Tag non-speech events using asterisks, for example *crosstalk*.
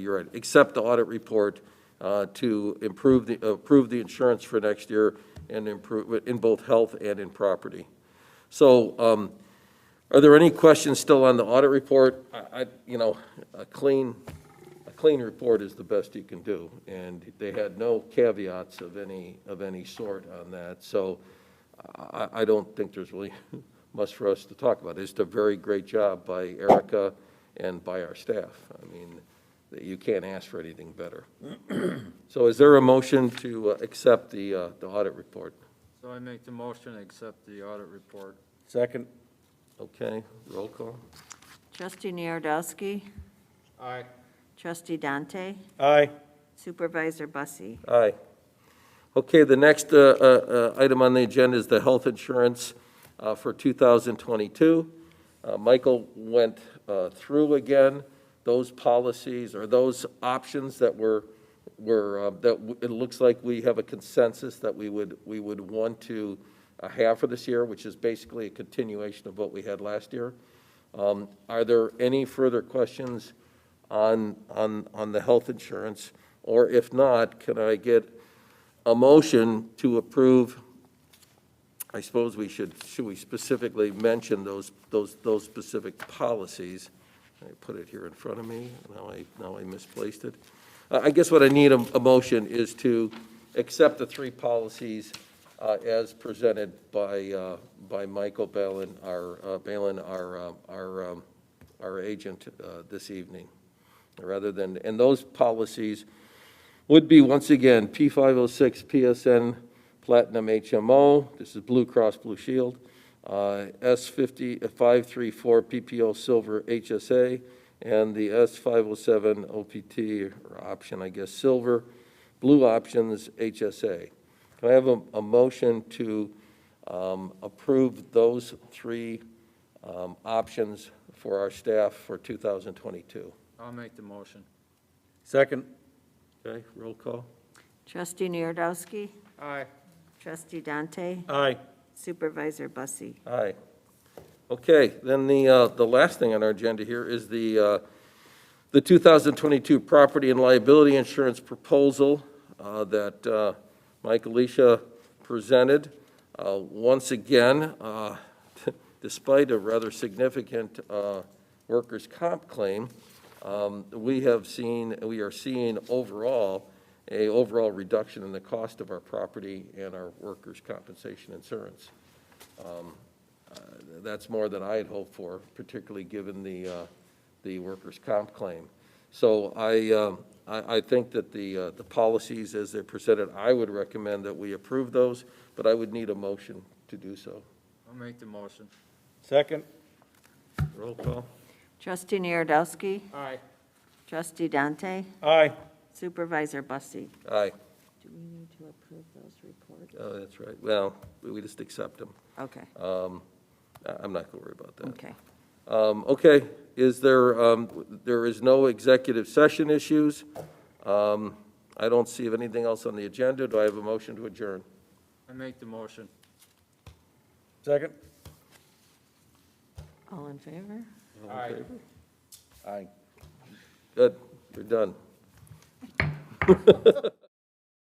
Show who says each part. Speaker 1: You're right, accept the audit report uh, to improve the, approve the insurance for next year and improve, it in both health and in property. So um, are there any questions still on the audit report? I, I- you know, a clean, a clean report is the best you can do, and they had no caveats of any, of any sort on that. So I, I don't think there's really *laughs* much for us to talk about. It's a very great job by Erica and by our staff. I mean, you can't ask for anything better. *clears throat* So is there a motion to uh, accept the, uh, the audit report?
Speaker 2: So I make the motion, to accept the audit report.
Speaker 3: Second.
Speaker 1: Okay, roll call.
Speaker 4: Trustee Narodowski,
Speaker 2: Aye.
Speaker 4: Trustee Dante,
Speaker 3: Aye.
Speaker 4: Supervisor Bussie.
Speaker 1: Aye. Okay, the next uh, uh, uh, item on the agenda is the health insurance uh, for 2022. Uh, Michael went uh, through again those policies or those options that were, were, uh, that w- it looks like we have a consensus that we would, we would want to uh, have for this year, which is basically a continuation of what we had last year. Um, Are there any further questions on, on, on the health insurance? Or if not, can I get a motion to approve? I suppose we should, should we specifically mention those, those, those specific policies? I put it here in front of me, now I, now I misplaced it. Uh, I, I guess what I need a, a motion is to accept the three policies uh, as presented by, uh, by Michael Balin, our, uh, Balin, our, uh, our, um, our agent uh, this evening, rather than, and those policies would be, once again, P506 PSN Platinum HMO, this is Blue Cross Blue Shield, uh, S50, uh, 534 PPO Silver HSA, and the S507 OPT, or option, I guess, Silver, Blue Options HSA. Can I have a, a motion to um, approve those three um, options for our staff for 2022?
Speaker 2: I'll make the motion.
Speaker 3: Second.
Speaker 1: Okay, roll call.
Speaker 4: Trustee Narodowski,
Speaker 2: Aye.
Speaker 4: Trustee Dante,
Speaker 3: Aye.
Speaker 4: Supervisor Bussie.
Speaker 1: Aye. Okay, then the, uh, the last thing on our agenda here is the, uh, the 2022 property and liability insurance proposal uh, that uh, Mike Alicia presented. Uh, Once again, uh, *laughs* despite a rather significant uh, workers' comp claim, um, we have seen, we are seeing overall, a overall reduction in the cost of our property and our workers' compensation insurance. Uh, That's more than I had hoped for, particularly given the, uh, the workers' comp claim. So I, um, I, I think that the, uh, the policies as they're presented, I would recommend that we approve those, but I would need a motion to do so.
Speaker 2: I'll make the motion.
Speaker 3: Second.
Speaker 1: Roll call.
Speaker 4: Trustee Narodowski,
Speaker 2: Aye.
Speaker 4: Trustee Dante,
Speaker 3: Aye.
Speaker 4: Supervisor Bussie.
Speaker 1: Aye.
Speaker 4: Do we need to approve those reports?
Speaker 1: Oh, that's right. Well, we we just accept them.
Speaker 4: Okay,
Speaker 1: I- I'm not going to worry about that.
Speaker 4: okay.
Speaker 1: Um, Okay, is there, um, there is no executive session issues? Um, I don't see anything else on the agenda. Do I have a motion to adjourn?
Speaker 2: I make the motion.
Speaker 3: Second.
Speaker 4: All in favor?
Speaker 2: Aye.
Speaker 3: Aye.
Speaker 1: Good, you're done.